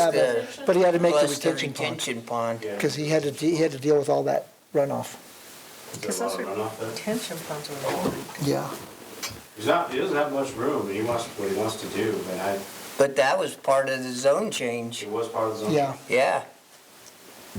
have it, the- but he had to make the plus the retention pond, retention pond. Yeah. because he had to, de- he had to deal with all that runoff. Is there a lot of runoff there? Tension ponds are long. Yeah. He's not, he doesn't have much room, and he wants, what he wants to do, but I, But that was part of the zone change. it was part of the zone. Yeah. Yeah,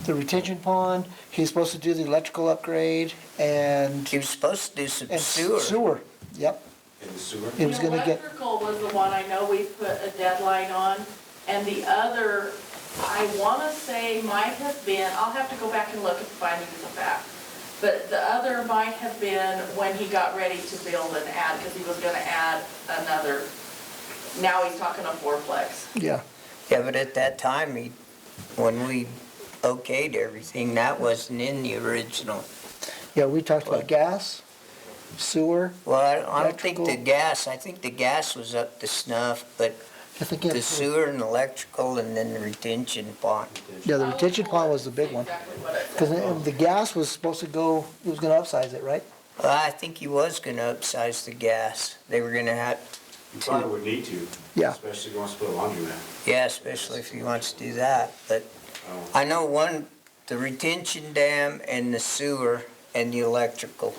The retention pond, he's supposed to do the electrical upgrade and, he was supposed to do some and sewer. sewer. Yep, In the sewer. he was gonna get, Electrical was the one I know we put a deadline on, and the other, I wanna say might have been, I'll have to go back and look at the findings of fact. But the other might have been when he got ready to build and add, because he was gonna add another, now he's talking a fourplex. yeah, Yeah, but at that time, he, when we okayed everything, that wasn't in the original. yeah, we talked about gas, sewer, Well, I don't- I don't think the Electrical. gas, I think the gas was up to snuff, but I think. he had the sewer. sewer and electrical and then the retention pond. Yeah, the retention pond was the big one, Exactly what it because the gas was supposed to go, he was gonna upsize it, right? Well, I think he was gonna upsize the gas. They were gonna have, You probably would need to. Yeah. Especially if he wants to put a laundromat. yeah, especially if he wants to do that, but Oh, I know one, the retention dam and the sewer and the electrical,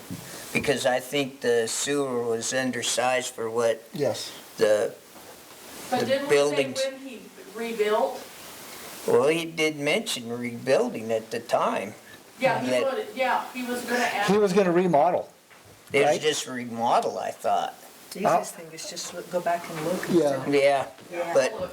because I think the sewer was undersized for what Yes. the, the But didn't we buildings. say when he rebuilt? well, he did mention rebuilding at the time. Yeah, he That- would, yeah, he was gonna add. He was gonna remodel. It was Right. just remodel, I thought. The Uh, easiest thing is just look, go back and look. Yeah. Yeah, Yeah. but,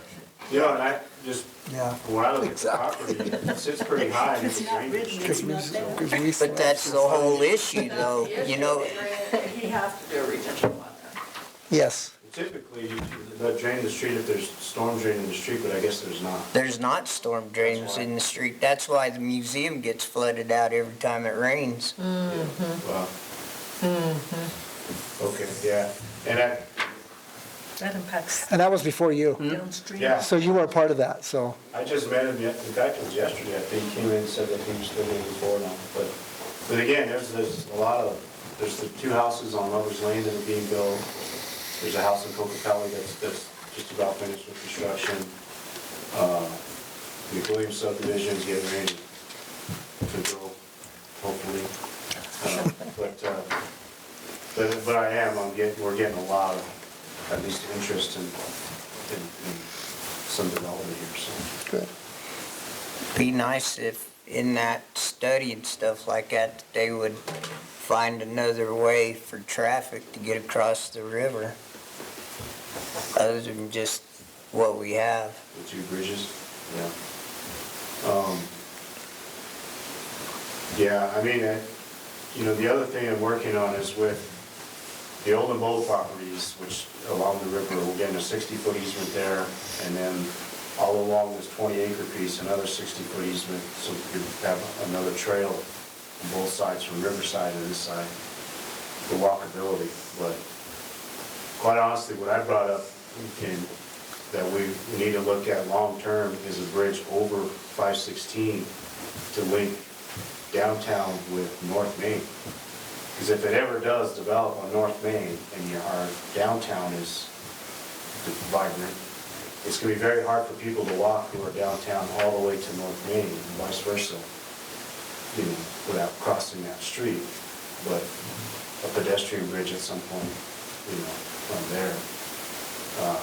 You know, and I just, Yeah. when I look at the property, it sits pretty high. and It's drainage. It's not there. but that's the whole issue oh, though, you know, He has to do a retention pond there. Yes, Typically, you- they drain the street if there's storm drain in the street, but I guess there's not. there's not storm drains in the street. That's why the museum gets flooded out every time it rains. Mm-hmm. Wow. Okay, yeah. And I, That impacts and that was before you, downstream. Yeah. so you were a part of that, so, I just met him, yet- in fact, it was yesterday, I think, he came in and said that he was living in Florida, but, but again, there's, there's a lot of, there's the two houses on Lover's Lane that are being built, there's a house in Cocatali that's, that's just about finished with construction, uh, the Williams subdivision's getting ready to go, hopefully. Uh, But, uh, but, but I am, I'm getting, we're getting a lot of, at least interest in, in, in some development here, so. good. be nice if in that study and stuff like that, that they would find another way for traffic to get across the river. Other than just what we have. The two bridges? Yeah. Um, Yeah, I mean, I- you know, the other thing I'm working on is with the old and bold properties, which along the river, we're getting a 60-foot easement there, and then all along this 20-acre piece, another 60-foot easement, so you have another trail on both sides, from Riverside to this side, for walkability, but quite honestly, what I brought up and that we we need to look at long-term is a bridge over 516 to link downtown with North Main. Because if it ever does develop on North Main and your, our downtown is vibrant, it's gonna be very hard for people to walk who are downtown all the way to North Main and vice versa, you know, without crossing that street. But a pedestrian bridge at some point, you know, from there. Uh,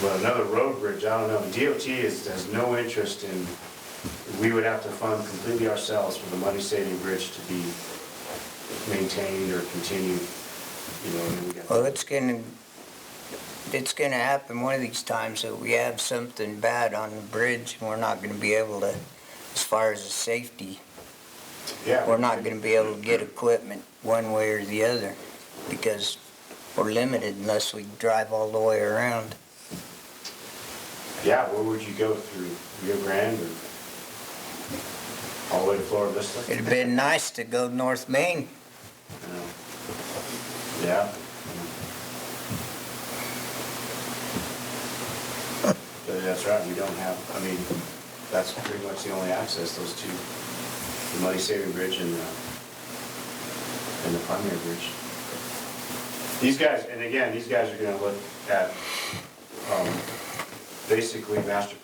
But another road bridge, I don't know, DOT is, has no interest in, we would have to fund completely ourselves for the money-saving bridge to be maintained or continued, you know, and we got. Well, it's gonna, it's gonna happen one of these times that we have something bad on the bridge and we're not gonna be able to, as far as the safety, Yeah. we're not gonna be able to get equipment one way or the other because we're limited unless we drive all the way around. Yeah, where would you go through Rio Grande or all the way to Florida Vista? It'd have been nice to go North Main. Yeah. But that's right, we don't have, I mean, that's pretty much the only access, those two, the Money Saving Bridge and the, and the primary bridge. These guys, and again, these guys are gonna look at, um, basically master